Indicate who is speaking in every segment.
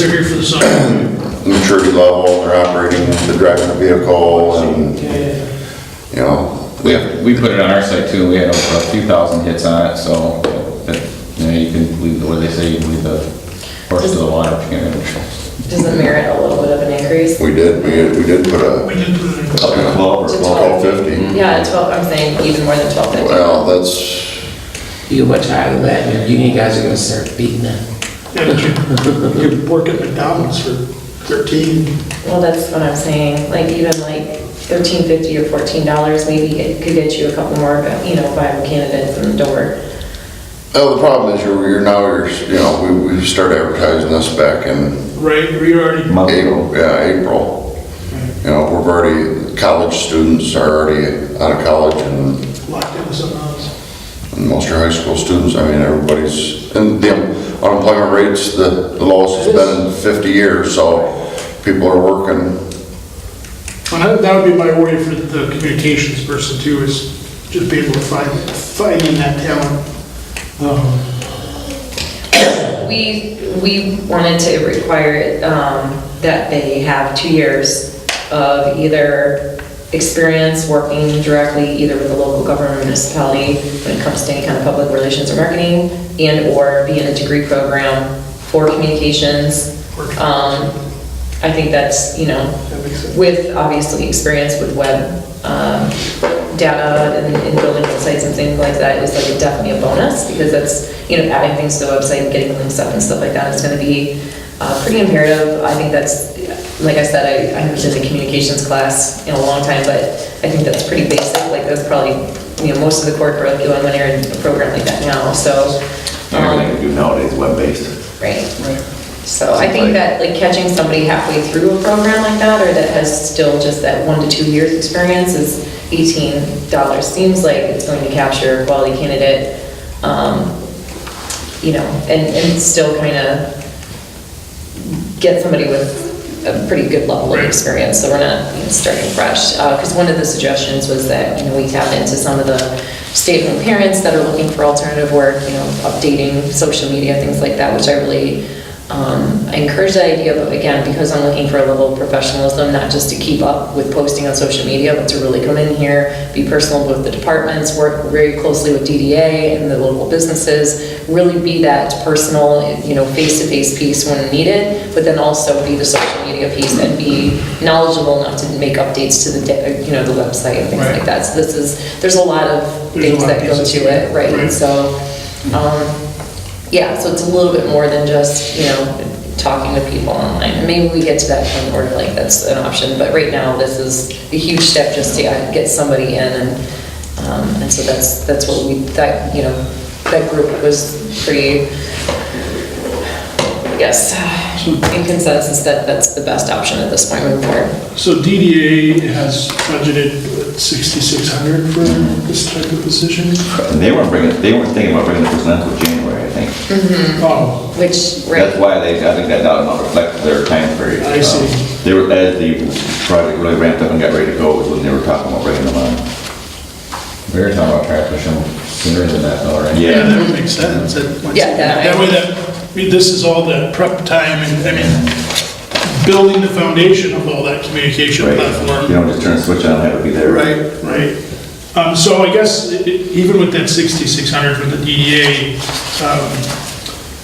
Speaker 1: they're here for the summer.
Speaker 2: maturity level, they're operating, they're driving a vehicle, and, you know,
Speaker 3: We, we put it on our site too, we had over a few thousand hits on it, so, but, you know, you can leave, the what do they say, you can leave the horse to the water. if you know.
Speaker 4: Does it merit a little bit of an increase?
Speaker 2: we did, we did, we did put a,
Speaker 1: We did put it in.
Speaker 2: up to
Speaker 4: To
Speaker 2: twelve or
Speaker 4: 12.
Speaker 2: twelve fifty.
Speaker 4: Yeah, twelve, I'm saying even more than twelve fifty.
Speaker 2: Well, that's,
Speaker 5: You watch out of that, and you guys are gonna start beating them.
Speaker 1: Yeah, but you- You work at McDonald's for 13.
Speaker 4: Well, that's what I'm saying, like even like thirteen fifty or fourteen dollars, maybe it could get you a couple more, you know, viable candidates in the door.
Speaker 2: oh, the problem is you're, you're now, you're, you know, we, we started advertising this back in
Speaker 1: Right, we already,
Speaker 3: Month ago.
Speaker 2: April, yeah, April. You know, we're already, college students are already out of college and
Speaker 1: locked into something else.
Speaker 2: And Most of your high school students, I mean, everybody's, and the unemployment rate's the the lowest it's been in 50 years, so people are working.
Speaker 1: And that- that would be my worry for the communications person too, is just be able to find, finding that talent. Um,
Speaker 4: We, we wanted to require it, um, that they have two years of either experience working directly either with the local government or municipality when it comes to any kind of public relations or marketing and/or be in a degree program for communications. Um, I think that's, you know,
Speaker 1: That makes sense.
Speaker 4: with obviously experience with web um, data and and building websites and things like that is like definitely a bonus because that's, you know, adding things to the website and getting links up and stuff like that is going to be uh, pretty imperative. I think that's, like I said, I I haven't been in a communications class in a long time, but I think that's pretty basic. Like that's probably, you know, most of the core curriculum when you're in a program like that now, so. um,
Speaker 6: Everything we do nowadays is web-based.
Speaker 4: Right. So I think that, like, catching somebody halfway through a program like that, or that has still just that one to two years experience is eighteen dollars. Seems like it's going to capture a quality candidate, um, you know, and, and still kind of get somebody with a pretty good level of experience, so we're not you know, starting fresh. Because one of the suggestions was that, you know, we tap into some of the stay-at-home parents that are looking for alternative work, you know, updating social media, things like that, which I really, um, I encourage that idea, but again, because I'm looking for a level of professionalism, not just to keep up with posting on social media, but to really come in here, be personal with the departments, work very closely with DDA and the local businesses, really be that personal, you know, face-to-face piece when needed, but then also be the social media piece and be knowledgeable enough to make updates to the, da- you know, the website and things like that. So this is, there's a lot of
Speaker 1: There's a
Speaker 4: things
Speaker 1: lot of
Speaker 4: that go
Speaker 1: pieces
Speaker 4: to
Speaker 1: to it,
Speaker 4: it, right?
Speaker 1: right.
Speaker 4: And So, um, yeah, so it's a little bit more than just, you know, talking to people online. And maybe we get to that point where like that's an option, but right now this is a huge step just to uh, get somebody in and, um, and so that's, that's what we, that, you know, that group was pretty, I guess, in consensus that that's the best option at this point moving forward.
Speaker 1: So DDA has budgeted what, 6,600 for this type of position?
Speaker 6: And they weren't bringing, they weren't thinking about bringing the person until January, I think.
Speaker 1: Oh,
Speaker 4: Which,
Speaker 6: That's
Speaker 4: right,
Speaker 6: why they, I think that dollar amount reflects their time period.
Speaker 1: I see.
Speaker 6: Um, They were, as the project really ramped up and got ready to go, was when they were talking about bringing them on.
Speaker 3: We were talking about trying to push them sooner than that though, right?
Speaker 1: yeah,
Speaker 6: Yeah,
Speaker 1: that would make sense. That once-
Speaker 4: Yeah, that-
Speaker 1: That way that, I mean, this is all the prep time and, I mean, building the foundation of all that communication
Speaker 6: right. You
Speaker 1: platform.
Speaker 6: don't just turn a switch on, and have it be there.
Speaker 1: Right. Um, So I guess i- i- even with that 6,600 for the DDA, um,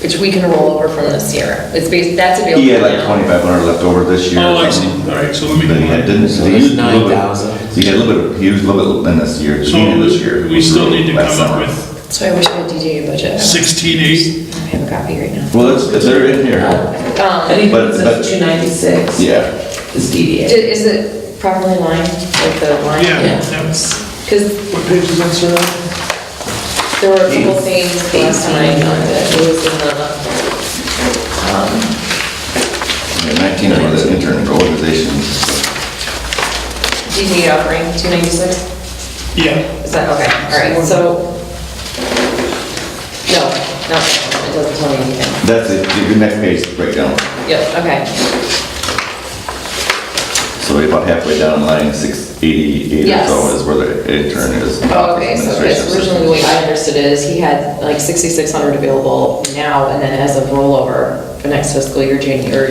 Speaker 4: which we can roll over from this year. It's based, that's available
Speaker 6: He had like
Speaker 4: now.
Speaker 6: twenty-five hundred left over this year. or
Speaker 1: oh, I see,
Speaker 6: something.
Speaker 1: all right, so let me.
Speaker 6: Then he had, didn't, so he
Speaker 5: It's
Speaker 6: used a little bit.
Speaker 5: 9,000.
Speaker 6: So he had a little bit, of- he used a little bit in this year, he needed this year.
Speaker 1: So we still need to
Speaker 6: last
Speaker 1: come up
Speaker 6: summer.
Speaker 1: with
Speaker 4: So I wish I had DDA budget.
Speaker 1: 16,800.
Speaker 4: I have a copy right now.
Speaker 6: Well, it's, it's- they're in here,
Speaker 4: Um,
Speaker 5: Anything
Speaker 6: But- but-
Speaker 5: that's two ninety-six
Speaker 6: yeah.
Speaker 5: is DDA.
Speaker 4: Is it properly lined, like the line?
Speaker 1: Yeah, that was-
Speaker 4: Because
Speaker 1: What page is that, sir?
Speaker 4: there were a couple things last time that it was in the,
Speaker 6: Nineteen for the intern for organizations.
Speaker 4: DD offering, 296?
Speaker 1: Yeah,
Speaker 4: Is that, okay, all right, so. No, no, it doesn't tell me anything.
Speaker 6: That's it, the next page breakdown.
Speaker 4: Yep, okay.
Speaker 6: So we're about halfway down line six eighty-eight or so
Speaker 4: Yes.
Speaker 6: is where the intern is.
Speaker 4: Oh, okay, so
Speaker 6: Administration
Speaker 4: that's originally the way I understood it is he had like 6,600 available now, and then as a rollover for next fiscal year, January,